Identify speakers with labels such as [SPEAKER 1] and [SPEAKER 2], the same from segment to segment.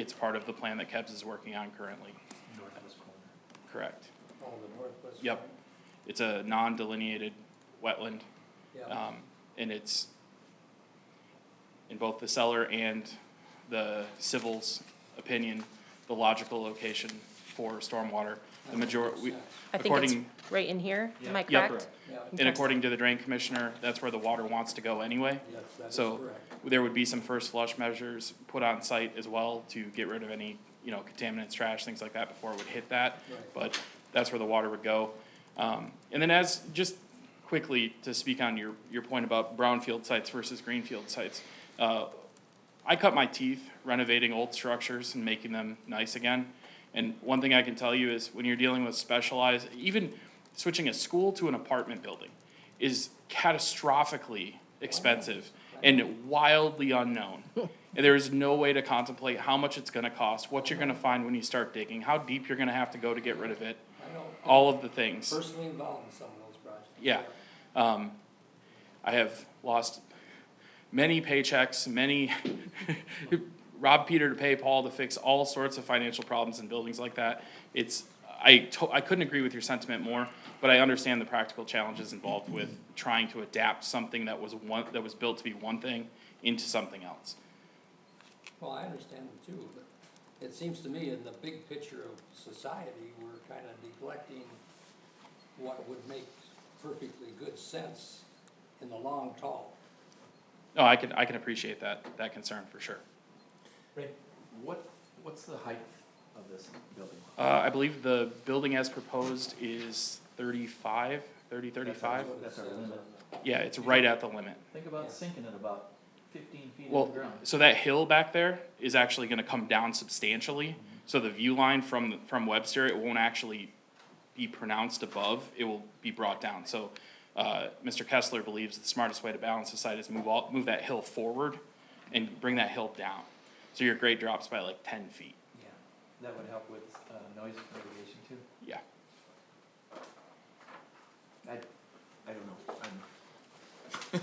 [SPEAKER 1] It's part of the plan that KEBS is working on currently,
[SPEAKER 2] northwest corner.
[SPEAKER 1] correct?
[SPEAKER 3] On Oh, the northwest.
[SPEAKER 1] Yep.
[SPEAKER 3] corner?
[SPEAKER 1] It's a non-delineated wetland,
[SPEAKER 3] Yeah,
[SPEAKER 1] um, and it's in both the seller and the civil's opinion, the logical location for stormwater. The major, we,
[SPEAKER 4] I think it's
[SPEAKER 1] according,
[SPEAKER 4] right in here, am I
[SPEAKER 1] yeah,
[SPEAKER 4] correct?
[SPEAKER 3] yeah,
[SPEAKER 1] and according to the drain commissioner, that's where the water wants to go anyway.
[SPEAKER 3] yes, that is
[SPEAKER 1] So-
[SPEAKER 3] correct.
[SPEAKER 1] There would be some first flush measures put on site as well to get rid of any, you know, contaminants, trash, things like that before it would hit that.
[SPEAKER 3] Right.
[SPEAKER 1] but that's where the water would go. Um, and then as, just quickly to speak on your, your point about brownfield sites versus greenfield sites. Uh, I cut my teeth renovating old structures and making them nice again. And one thing I can tell you is when you're dealing with specialized, even switching a school to an apartment building is catastrophically expensive and wildly unknown. And there is no way to contemplate how much it's gonna cost, what you're gonna find when you start digging, how deep you're gonna have to go to get rid of it,
[SPEAKER 3] I know,
[SPEAKER 1] all of the things.
[SPEAKER 3] personally involved in some of those projects.
[SPEAKER 1] Yeah. Um, I have lost many paychecks, many rob Peter to pay Paul to fix all sorts of financial problems in buildings like that. It's, I to, I couldn't agree with your sentiment more, but I understand the practical challenges involved with trying to adapt something that was one, that was built to be one thing into something else.
[SPEAKER 3] Well, I understand them too, but it seems to me in the big picture of society, we're kind of neglecting what would make perfectly good sense in the long haul.
[SPEAKER 1] No, I can, I can appreciate that, that concern for sure.
[SPEAKER 2] Right, what, what's the height of this building?
[SPEAKER 1] Uh, I believe the building as proposed is thirty-five, thirty, thirty-five.
[SPEAKER 3] what it
[SPEAKER 2] That's our
[SPEAKER 3] says
[SPEAKER 2] limit.
[SPEAKER 3] on the-
[SPEAKER 1] Yeah, it's right at the limit.
[SPEAKER 2] Think about sinking it about fifteen feet in the
[SPEAKER 1] Well,
[SPEAKER 2] ground.
[SPEAKER 1] so that hill back there is actually gonna come down substantially, so the view line from, from Webster, it won't actually be pronounced above, it will be brought down, so, uh, Mr. Kessler believes the smartest way to balance the site is move all, move that hill forward and bring that hill down, so your grade drops by like ten feet,
[SPEAKER 2] Yeah, that would help with, uh, noise mitigation too.
[SPEAKER 1] yeah.
[SPEAKER 2] I, I don't know, I'm.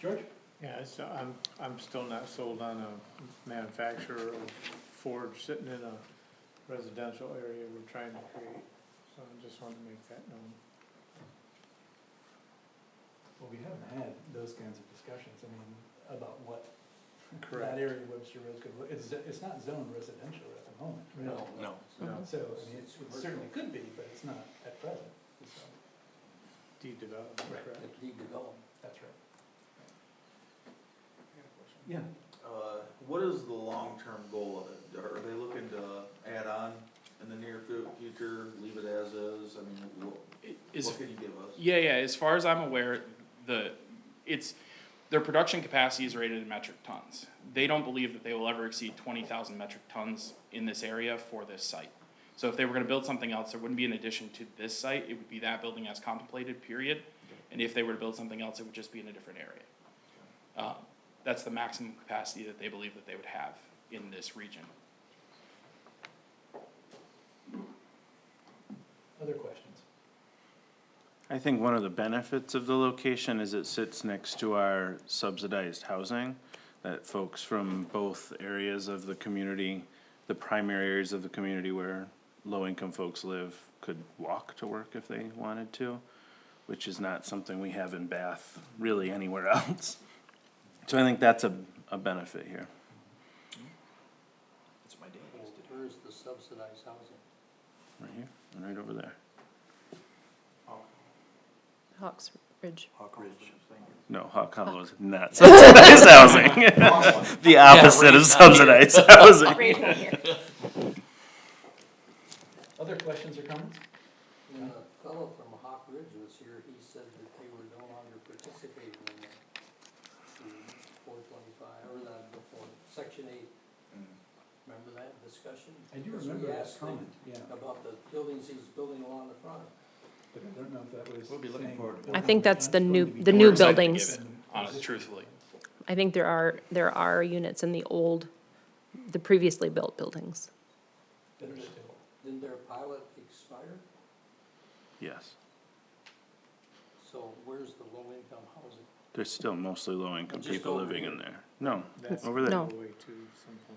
[SPEAKER 5] George?
[SPEAKER 6] Yeah, it's, I'm, I'm still not sold on a manufacturer of Ford sitting in a residential area we're trying to create, so I just wanted to make that known.
[SPEAKER 5] Well, we haven't had those kinds of discussions, I mean, about what that area of Webster Road could, look- it's, it's not zoned residential at the moment, right?
[SPEAKER 3] No.
[SPEAKER 7] No.
[SPEAKER 4] Oh,
[SPEAKER 6] No,
[SPEAKER 5] So, I mean, it's- it certainly could be, but it's not at present, so,
[SPEAKER 6] deed development,
[SPEAKER 5] Right.
[SPEAKER 6] correct?
[SPEAKER 3] It's redevelopment.
[SPEAKER 5] that's right.
[SPEAKER 2] Yeah.
[SPEAKER 8] Uh, what is the long-term goal of it? Are they looking to add on in the near fu- future, leave it as is? I mean, what,
[SPEAKER 1] Is,
[SPEAKER 8] what can you give us?
[SPEAKER 1] yeah, yeah, as far as I'm aware, the, it's, their production capacity is rated in metric tons. They don't believe that they will ever exceed twenty thousand metric tons in this area for this site. So if they were gonna build something else, there wouldn't be an addition to this site, it would be that building as contemplated, period. And if they were to build something else, it would just be in a different area. Uh, that's the maximum capacity that they believe that they would have in this region.
[SPEAKER 5] Other questions?
[SPEAKER 9] I think one of the benefits of the location is it sits next to our subsidized housing that folks from both areas of the community, the primary areas of the community where low-income folks live could walk to work if they wanted to, which is not something we have in Bath really anywhere else. So I think that's a, a benefit here.
[SPEAKER 2] That's what my dad used to do.
[SPEAKER 3] Where's the subsidized housing?
[SPEAKER 9] Right here and right over there.
[SPEAKER 4] Hawks Ridge.
[SPEAKER 2] Hawk Ridge.
[SPEAKER 9] No, Hawk Hollow is not subsidized housing. The opposite of subsidized housing.
[SPEAKER 4] Right here.
[SPEAKER 5] Other questions or comments?
[SPEAKER 3] When the Uh, fellow from Hawk Ridge was here, he said that they were no longer participating in the four twenty-five, or the, the four, section eight. Remember that discussion?
[SPEAKER 5] I do
[SPEAKER 3] Because we
[SPEAKER 5] remember that
[SPEAKER 3] asked him
[SPEAKER 5] comment, yeah,
[SPEAKER 3] About the buildings he's building along the front.
[SPEAKER 5] but I don't know if that was.
[SPEAKER 2] We'll be looking
[SPEAKER 5] saying-
[SPEAKER 2] forward to
[SPEAKER 4] I think that's the new, the
[SPEAKER 1] We're
[SPEAKER 4] new
[SPEAKER 1] excited to give
[SPEAKER 4] buildings.
[SPEAKER 1] it, Honest, truthfully.
[SPEAKER 4] I think there are, there are units in the old, the previously built buildings.
[SPEAKER 5] That are still-
[SPEAKER 3] Didn't their pilot expire?
[SPEAKER 9] Yes,
[SPEAKER 3] So where's the low-income housing?
[SPEAKER 9] there's still mostly low-income
[SPEAKER 3] Just
[SPEAKER 9] people
[SPEAKER 3] over
[SPEAKER 9] living
[SPEAKER 3] here.
[SPEAKER 9] in there. No,
[SPEAKER 6] That's
[SPEAKER 9] over there.
[SPEAKER 4] No.
[SPEAKER 6] way too, someplace.